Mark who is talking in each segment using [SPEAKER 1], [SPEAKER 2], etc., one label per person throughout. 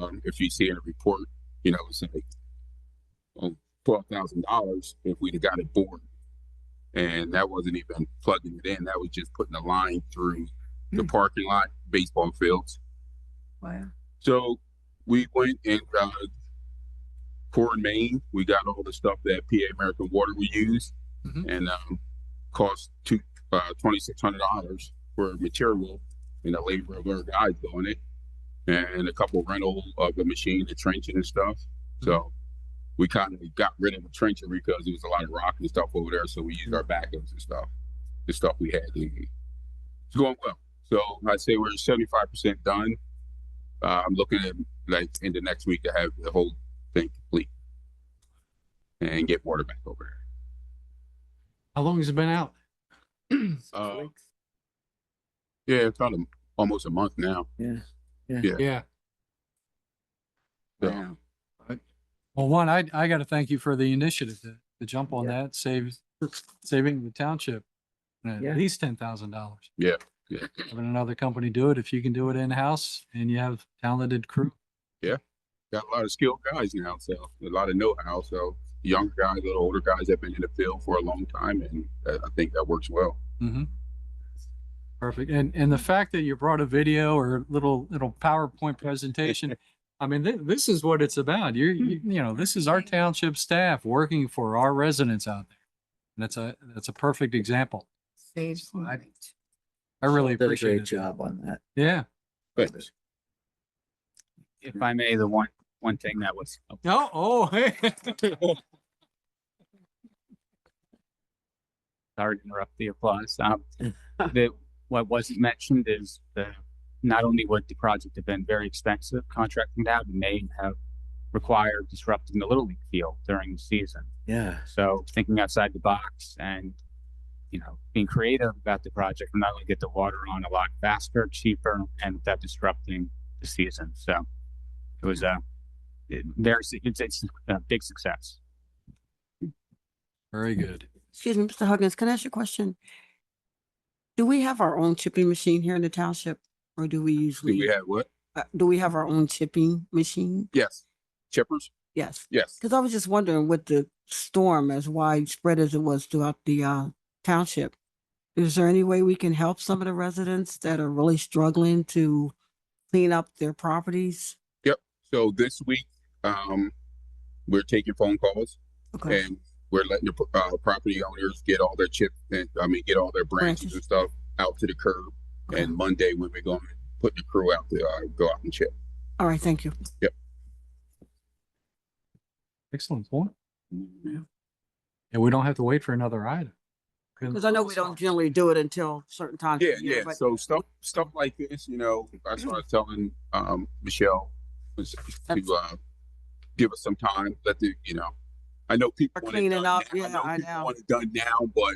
[SPEAKER 1] um, if you see in a report, you know, say um, twelve thousand dollars if we'd have got it bored. And that wasn't even plugging it in. That was just putting a line through the parking lot, baseball fields.
[SPEAKER 2] Wow.
[SPEAKER 1] So we went and uh, poured Maine. We got all the stuff that PA American Water we used,
[SPEAKER 3] Mhm.
[SPEAKER 1] and um, cost two uh, twenty six hundred dollars for material and the labor of our guys doing it, and a couple rental of the machine, the trenching and stuff. So we kind of got rid of the trenching because there was a lot of rock and stuff over there. So we used our backups and stuff, the stuff we had. It's going well. So I'd say we're seventy five percent done. Uh, I'm looking at like in the next week to have the whole thing complete and get water back over there.
[SPEAKER 3] How long has it been out?
[SPEAKER 1] Uh, yeah, it's about a, almost a month now.
[SPEAKER 3] Yeah.
[SPEAKER 1] So,
[SPEAKER 3] Well, one, I, I got to thank you for the initiative to, to jump on that, saves, saving the township uh, at
[SPEAKER 2] Yeah.
[SPEAKER 3] least ten thousand dollars.
[SPEAKER 1] Yeah, yeah.
[SPEAKER 3] Having another company do it, if you can do it in-house and you have talented crew.
[SPEAKER 1] Got a lot of skilled guys now, so a lot of know-how. So younger guys, a little older guys have been in the field for a long time, and uh, I think that works well.
[SPEAKER 3] Mm-hmm. Perfect. And, and the fact that you brought a video or little, little PowerPoint presentation, I mean, thi- this is what it's about. You're, you, you know, this is our township staff working for our residents out there. And that's a, that's a perfect example.
[SPEAKER 2] Saves
[SPEAKER 3] I-
[SPEAKER 2] money.
[SPEAKER 3] I really
[SPEAKER 4] Did a
[SPEAKER 3] appreciate
[SPEAKER 4] great
[SPEAKER 3] it.
[SPEAKER 4] job on that.
[SPEAKER 3] Yeah.
[SPEAKER 1] But
[SPEAKER 5] if I may, the one, one thing that was, oh,
[SPEAKER 3] No, oh, hey.
[SPEAKER 5] sorry to interrupt the applause. Um, that what wasn't mentioned is the, not only would the project have been very expensive contracting that, it may have required disrupting the Little League field during the season.
[SPEAKER 4] Yeah.
[SPEAKER 5] So thinking outside the box and, you know, being creative about the project, we're not going to get the water on a lot faster, cheaper, and without disrupting the season. So it was a, it, there's, it's, it's a big success.
[SPEAKER 3] Very good.
[SPEAKER 6] Excuse me, Mr. Huggins, can I ask you a question? Do we have our own chipping machine here in the township or do we
[SPEAKER 1] do
[SPEAKER 6] usually,
[SPEAKER 1] we have what?
[SPEAKER 6] uh, do we have our own chipping machine?
[SPEAKER 1] Yes, chippers.
[SPEAKER 6] Yes,
[SPEAKER 1] Yes,
[SPEAKER 6] because I was just wondering with the storm as widespread as it was throughout the uh, township. Is there any way we can help some of the residents that are really struggling to clean up their properties?
[SPEAKER 1] So this week, um, we're taking phone calls
[SPEAKER 6] Okay,
[SPEAKER 1] and we're letting the pro- uh, property owners get all their chips and I mean get all their branches
[SPEAKER 6] Branches.
[SPEAKER 1] and stuff out to the curb.
[SPEAKER 6] okay.
[SPEAKER 1] And Monday when we're going to put the crew out to uh, go out and check.
[SPEAKER 6] All right, thank you.
[SPEAKER 3] Excellent point. And we don't have to wait for another item. Good.
[SPEAKER 6] Because I know we don't generally do it until certain times. of
[SPEAKER 1] Yeah,
[SPEAKER 6] the year,
[SPEAKER 1] yeah.
[SPEAKER 6] but- Mm-hmm.
[SPEAKER 1] So stuff stuff like this, you know, that's what I was telling um, Michelle was to uh, give us some time. Let the you know, I know people
[SPEAKER 6] For
[SPEAKER 1] want it
[SPEAKER 6] cleaning
[SPEAKER 1] done
[SPEAKER 6] up,
[SPEAKER 1] now.
[SPEAKER 6] yeah, I
[SPEAKER 1] people
[SPEAKER 6] know.
[SPEAKER 1] want it done now, but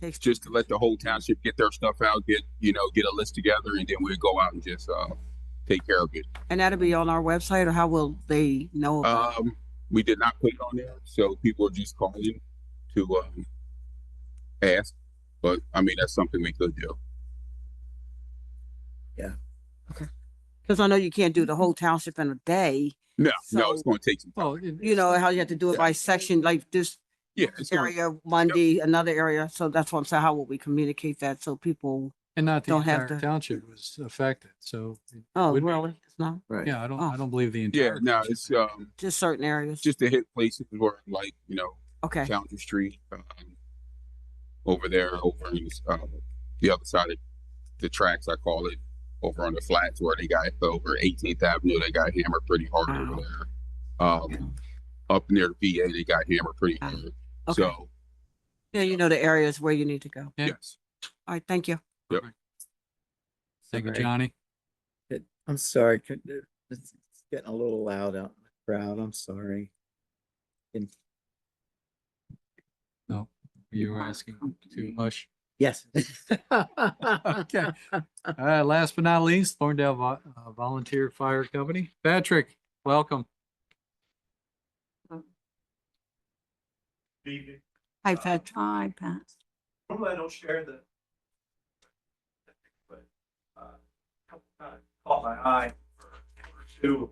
[SPEAKER 6] Takes-
[SPEAKER 1] just to let the whole township get their stuff out, get you know, get a list together, and then we'll go out and just uh, take care of it.
[SPEAKER 6] And that'll be on our website or how will they know? about it?
[SPEAKER 1] Um, we did not put it on there, so people are just calling to um, ask. But I mean, that's something we could do.
[SPEAKER 6] Cause I know you can't do the whole township in a day,
[SPEAKER 1] No, no, it's
[SPEAKER 6] So-
[SPEAKER 1] going to take some.
[SPEAKER 3] Well, it-
[SPEAKER 6] you know, how you have to do it
[SPEAKER 1] Yeah.
[SPEAKER 6] by section, like this
[SPEAKER 1] Yeah, it's going.
[SPEAKER 6] area Monday, another area. So that's what I'm saying. How will we communicate that? So people,
[SPEAKER 3] And not the
[SPEAKER 6] Don't have
[SPEAKER 3] entire
[SPEAKER 6] to-
[SPEAKER 3] township was affected. So,
[SPEAKER 6] oh,
[SPEAKER 3] Would be.
[SPEAKER 6] really? It's not
[SPEAKER 4] Right.
[SPEAKER 3] yeah, I don't,
[SPEAKER 6] Oh.
[SPEAKER 3] I don't believe the
[SPEAKER 1] Yeah,
[SPEAKER 3] entire.
[SPEAKER 1] no,
[SPEAKER 3] township.
[SPEAKER 1] it's um
[SPEAKER 6] just certain areas.
[SPEAKER 1] just to hit places where like you know
[SPEAKER 6] Okay.
[SPEAKER 1] Fountain Street, um, over there, over in, um, the other side of the tracks, I call it, over on the flats where they got over 18th Avenue, they got hammered pretty hard over
[SPEAKER 6] Wow.
[SPEAKER 1] there. Um, up near the VA, they got hammered pretty
[SPEAKER 6] Ah,
[SPEAKER 1] hard.
[SPEAKER 6] okay.
[SPEAKER 1] So
[SPEAKER 6] Yeah, you know the areas where you need to go.
[SPEAKER 3] Yeah.
[SPEAKER 1] yes,
[SPEAKER 6] All right. Thank you.
[SPEAKER 3] Thank you,
[SPEAKER 4] Sorry.
[SPEAKER 3] Johnny.
[SPEAKER 4] I'm sorry. could- It's it's getting a little loud out in the crowd. I'm sorry.
[SPEAKER 3] You were asking too much.
[SPEAKER 4] Yes.
[SPEAKER 3] Okay. Uh, last but not least, Thorndale Vo- uh, Volunteer Fire Company. Patrick, welcome.
[SPEAKER 7] Evening.
[SPEAKER 6] I've had,
[SPEAKER 2] Hi, Pat.
[SPEAKER 7] Normally I don't share the. uh, But, uh, caught my eye for two